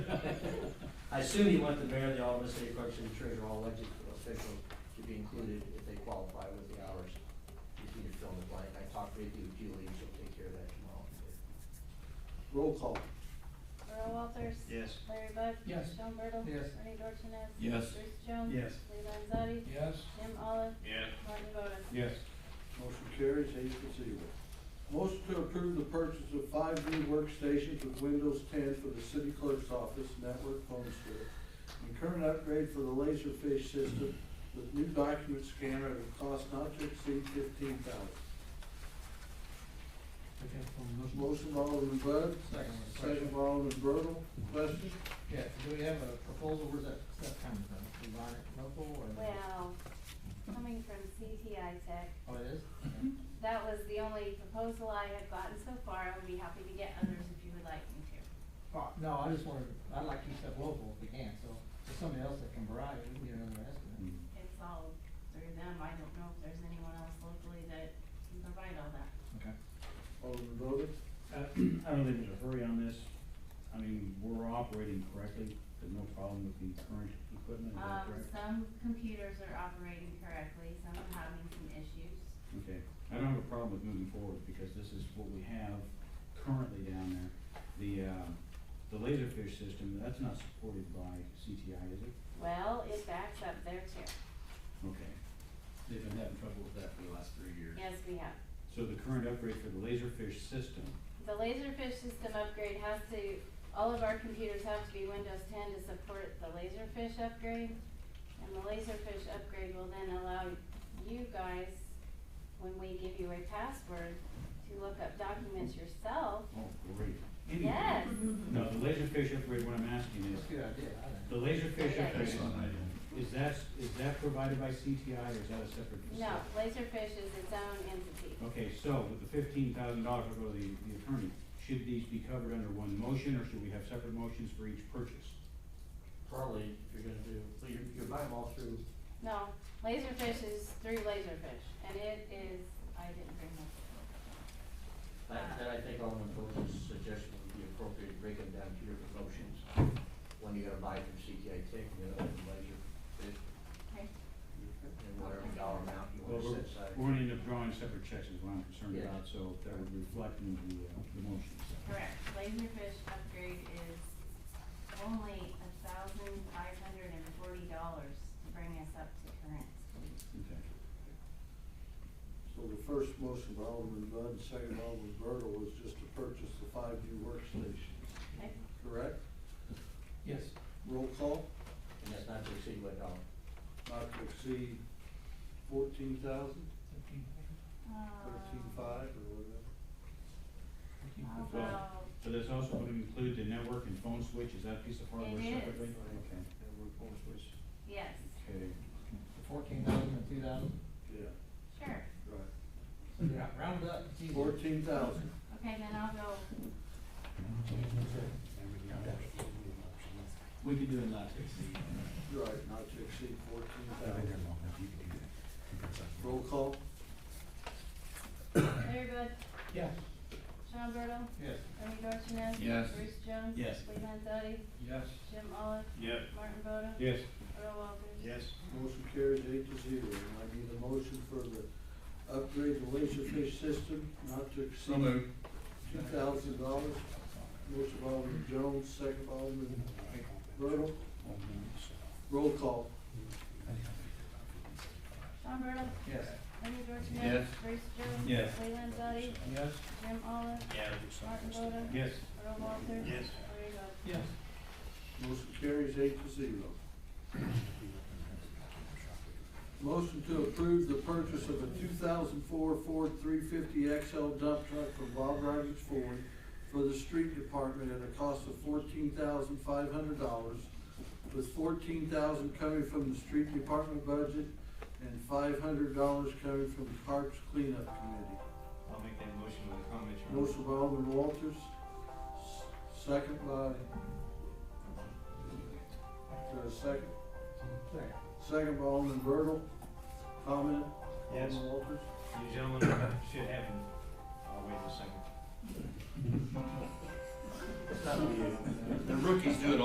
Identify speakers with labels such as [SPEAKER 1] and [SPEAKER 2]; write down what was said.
[SPEAKER 1] I assume you want the mayor, the alderman, city clerk, city treasurer, all elected officials to be included if they qualify with the hours. If you need to fill in the blank, I talked with you, Julie, she'll take care of that tomorrow. Roll call.
[SPEAKER 2] Earl Walters.
[SPEAKER 1] Yes.
[SPEAKER 2] Larry Bud.
[SPEAKER 3] Yes.
[SPEAKER 2] Sean Bertle.
[SPEAKER 3] Yes.
[SPEAKER 2] Bernie Dorchenez.
[SPEAKER 4] Yes.
[SPEAKER 2] Bruce Jones.
[SPEAKER 3] Yes.
[SPEAKER 2] Lee Landzadi.
[SPEAKER 4] Yes.
[SPEAKER 2] Jim Olive.
[SPEAKER 4] Yes.
[SPEAKER 2] Martin Boda.
[SPEAKER 4] Yes.
[SPEAKER 3] Motion carries eight to zero. Motion to approve the purchase of five new workstations with Windows ten for the city clerk's office network phone store. And current upgrade for the Laserfish system with new document scanner at a cost not to exceed fifteen thousand.
[SPEAKER 4] Second from
[SPEAKER 3] Motion by Alderman Bud,
[SPEAKER 4] Second.
[SPEAKER 3] second by Alderman Bertle, question?
[SPEAKER 4] Yeah, do we have a proposal, where's that stuff coming from, environment, local, or?
[SPEAKER 2] Well, coming from CTI Tech,
[SPEAKER 4] Oh, it is?
[SPEAKER 2] that was the only proposal I have gotten so far. I would be happy to get others if you would like me to.
[SPEAKER 4] Oh, No, I just wanted, I'd like to keep stuff local if we can, so if somebody else that can provide it, we can get another estimate.
[SPEAKER 2] It's all through them. I don't know if there's anyone else locally that can provide all that.
[SPEAKER 4] Okay.
[SPEAKER 3] Alderman Bode?
[SPEAKER 5] Uh, I don't think there's a hurry on this. I mean, we're operating correctly. There's no problem with the current equipment, is that
[SPEAKER 2] Um,
[SPEAKER 5] correct?
[SPEAKER 2] some computers are operating correctly, some are having some issues.
[SPEAKER 5] Okay. I don't have a problem with moving forward because this is what we have currently down there. The, uh, the Laserfish system, that's not supported by CTI, is it?
[SPEAKER 2] Well, it backs up their chair.
[SPEAKER 5] Okay.
[SPEAKER 6] They've been having trouble with that for the last three years.
[SPEAKER 2] Yes, we have.
[SPEAKER 5] So the current upgrade for the Laserfish system,
[SPEAKER 2] The Laserfish system upgrade has to, all of our computers have to be Windows ten to support the Laserfish upgrade. And the Laserfish upgrade will then allow you guys, when we give you a password, to look up documents yourself.
[SPEAKER 5] oh, great. Anyway.
[SPEAKER 2] Yes,
[SPEAKER 5] No, the Laserfish upgrade, what I'm asking
[SPEAKER 4] That's
[SPEAKER 5] is,
[SPEAKER 4] a good idea, I think.
[SPEAKER 5] the Laserfish
[SPEAKER 2] Yeah.
[SPEAKER 5] upgrade,
[SPEAKER 6] Excellent idea.
[SPEAKER 5] is that, is that provided by CTI or is that a separate facility?
[SPEAKER 2] no, Laserfish is its own entity.
[SPEAKER 5] Okay, so with the fifteen thousand dollars, I'll go to the, the attorney. Should these be covered under one motion, or should we have separate motions for each purchase?
[SPEAKER 1] Probably, if you're gonna do, well, you're, you're buying them all through,
[SPEAKER 2] No, Laserfish is through Laserfish, and it is, I didn't bring my.
[SPEAKER 1] that, that I think Alderman Bode's suggestion would be appropriate, break them down two different motions. One you gotta buy from CTI Tech, and the other one Laserfish,
[SPEAKER 2] Okay.
[SPEAKER 1] and whatever dollar amount you
[SPEAKER 5] Well,
[SPEAKER 1] wanna
[SPEAKER 5] we're,
[SPEAKER 1] set aside.
[SPEAKER 5] we're gonna end up drawing separate checks is what I'm concerned
[SPEAKER 1] Yeah.
[SPEAKER 5] about, so that would reflect in the, uh, the motions.
[SPEAKER 2] Correct, Laserfish upgrade is only a thousand five hundred and forty dollars to bring us up to current.
[SPEAKER 5] Okay.
[SPEAKER 3] So the first motion by Alderman Bud, second by Alderman Bertle was just to purchase the five new workstations,
[SPEAKER 2] Okay,
[SPEAKER 3] correct?
[SPEAKER 4] Yes.
[SPEAKER 3] Roll call?
[SPEAKER 1] And that's not to exceed what dollar?
[SPEAKER 3] not to exceed fourteen thousand, thirteen five or whatever.
[SPEAKER 2] Although,
[SPEAKER 5] So that's also gonna include the network and phone switch, is that a piece of hardware
[SPEAKER 2] It is.
[SPEAKER 5] separately? Okay,
[SPEAKER 3] And we're going to switch.
[SPEAKER 2] yes,
[SPEAKER 5] okay.
[SPEAKER 4] Fourteen thousand and two thousand,
[SPEAKER 3] Yeah,
[SPEAKER 2] sure,
[SPEAKER 3] right.
[SPEAKER 4] so yeah, round it up, it's easy.
[SPEAKER 3] Fourteen thousand.
[SPEAKER 2] okay, then I'll go,
[SPEAKER 6] We could do a not to exceed.
[SPEAKER 3] Right, not to exceed fourteen thousand. Roll call?
[SPEAKER 2] Larry Bud,
[SPEAKER 4] Yes.
[SPEAKER 2] Sean Bertle,
[SPEAKER 4] Yes.
[SPEAKER 2] Bernie Dorchenez.
[SPEAKER 6] Yes.
[SPEAKER 2] Bruce Jones.
[SPEAKER 6] Yes.
[SPEAKER 2] Lee Landzadi,
[SPEAKER 4] Yes.
[SPEAKER 2] Jim Olive,
[SPEAKER 5] Yes.
[SPEAKER 2] Martin Boda,
[SPEAKER 5] Yes.
[SPEAKER 2] Earl Walters.
[SPEAKER 5] Yes.
[SPEAKER 3] Motion carries eight to zero. And I need a motion for the upgrade the laserfish system not to exceed two thousand dollars. Motion by Alderman Jones, second by Alderman Bertle. Roll call?
[SPEAKER 2] Sean Bertle,
[SPEAKER 4] Yes.
[SPEAKER 2] Bernie Dorchenez.
[SPEAKER 6] Yes.
[SPEAKER 2] Bruce Jones.
[SPEAKER 5] Yes.
[SPEAKER 2] Lee Landzadi,
[SPEAKER 4] Yes.
[SPEAKER 2] Jim Olive,
[SPEAKER 6] Yeah.
[SPEAKER 2] Martin Boda.
[SPEAKER 5] Yes.
[SPEAKER 2] Earl Walters.
[SPEAKER 6] Yes.
[SPEAKER 2] Larry Bud.
[SPEAKER 4] Yes.
[SPEAKER 3] Motion carries eight to zero. Motion to approve the purchase of a two thousand four Ford three fifty XL dump truck from Bob Rogers Ford for the street department at a cost of fourteen thousand five hundred dollars, with fourteen thousand coming from the street department budget and five hundred dollars coming from the Parks Cleanup Committee.
[SPEAKER 6] I'll make that motion with a comment, Your Honor.
[SPEAKER 3] Motion by Alderman Walters, s- second by, is there a second?
[SPEAKER 4] Second.
[SPEAKER 3] Second by Alderman Bertle, comment?
[SPEAKER 6] Yes.
[SPEAKER 3] Alderman Walters?
[SPEAKER 6] You gentlemen should have, him. I'll wait a second.
[SPEAKER 1] It's not you.
[SPEAKER 6] The rookies do it